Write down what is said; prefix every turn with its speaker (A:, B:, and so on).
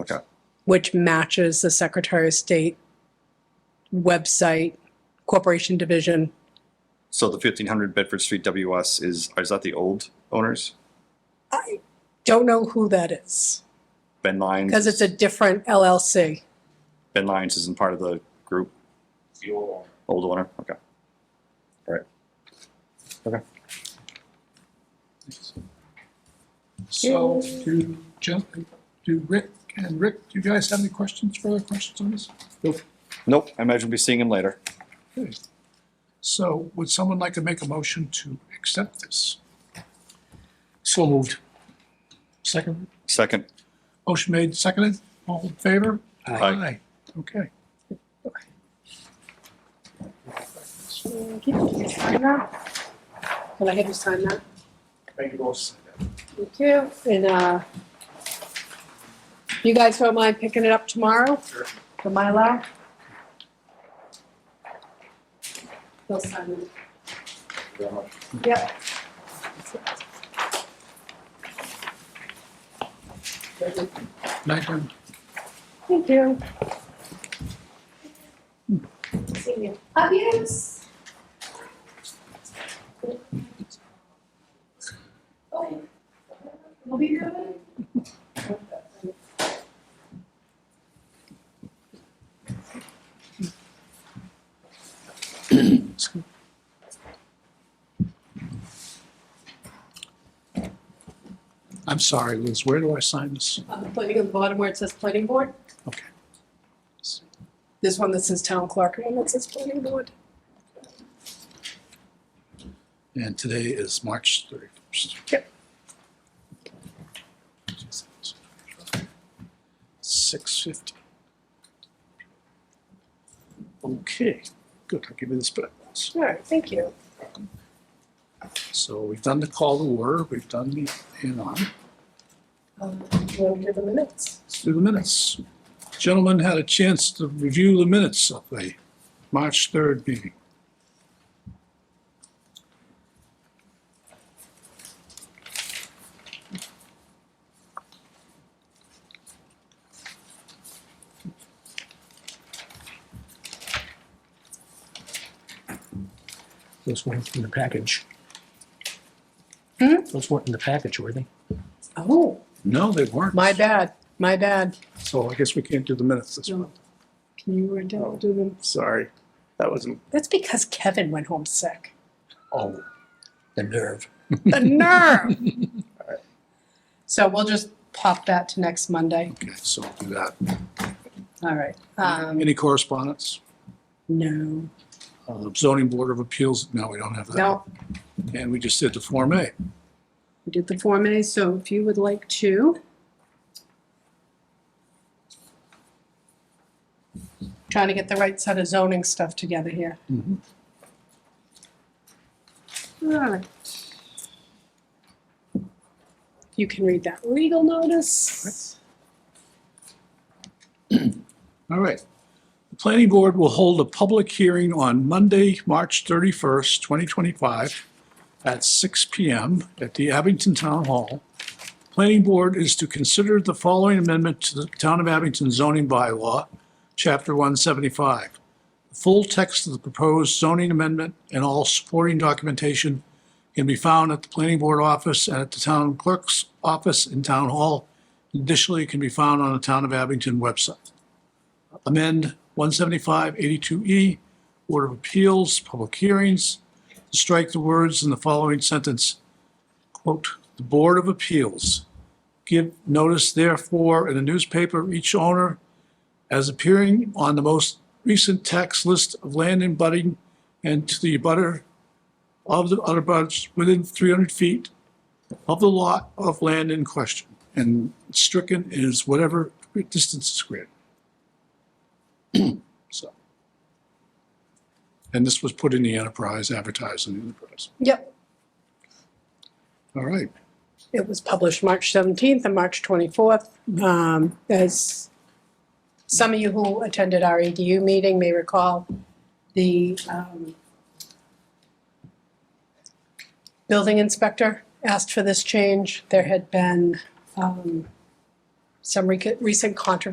A: Okay.
B: which matches the Secretary of State website, Corporation Division.
A: So the fifteen hundred Bedford Street WS is, is that the old owners?
B: I don't know who that is
A: Ben Lyons?
B: because it's a different LLC.
A: Ben Lyons isn't part of the group,
C: Fuel.
A: old owner, okay. All right.
C: So, do, Jen, do Rick, and Rick, do you guys have any questions, further questions on this?
A: Nope, I imagine we'll be seeing him later.
C: Okay. So would someone like to make a motion to accept this? So moved. Second,
A: Second,
C: motion made, seconded, all in favor?
A: Aye.
C: Okay.
B: Can I have you sign that?
C: Thank you both.
B: Thank you. And uh, you guys don't mind picking it up tomorrow?
C: Sure.
B: The Mylar? They'll sign it. Yep.
C: Night,
B: Thank you.
C: Jen.
B: See you. Adios. We'll be here
C: I'm sorry, Liz, where do I sign this?
B: I'm putting on the bottom where it says planning board.
C: Okay.
B: There's one that says town clerk and one that says planning board.
C: And today is March 31st.
B: Yep.
C: Six fifty. Okay, good, I'll give you this back.
B: All right, thank you.
C: So we've done the call to order, we've done the, you know,
B: Um, you want to do the minutes?
C: let's do the minutes. Gentlemen had a chance to review the minutes of the March 3rd meeting.
D: Those weren't in the package.
B: Hmm?
D: Those weren't in the package, were they?
B: Oh,
C: No, they weren't,
B: my bad, my bad.
C: so I guess we can't do the minutes this month,
B: No. Can you read down, do them?
C: sorry. That wasn't,
B: That's because Kevin went home sick.
D: Oh, the nerve.
B: The nerve! So we'll just pop that to next Monday.
C: okay, so we'll do that.
B: All right. Um,
C: Any correspondence?
B: no,
C: Uh, zoning board of appeals, no, we don't have that.
B: no,
C: And we just did the Form A.
B: we did the Form A, so if you would like to. Trying to get the right set of zoning stuff together here. All right. You can read that legal notice.
C: All right. The planning board will hold a public hearing on Monday, March 31st, 2025, at 6 PM at the Abington Town Hall. Planning board is to consider the following amendment to the Town of Abington zoning bylaw, Chapter 175. The Full text of the proposed zoning amendment and all supporting documentation can be found at the planning board office and at the town clerk's office in Town Hall. Additionally, it can be found on the Town of Abington website amend 175-82E, Board E, of Appeals, public hearings, to strike the words in the following sentence, quote, "The Board of Appeals give notice therefore in a newspaper of each owner as appearing on the most recent tax list of land and budding and to the abutter of the other butters within 300 feet of the lot of land in question." And stricken is whatever distance is greater. So. And this was put in the enterprise, advertised in the enterprise.
B: Yep,
C: All right.
B: it was published March 17th and March 24th. Um, As some of you who attended our EDU meeting may recall, the um, building inspector asked for this change. There had been um, some rec- recent controversy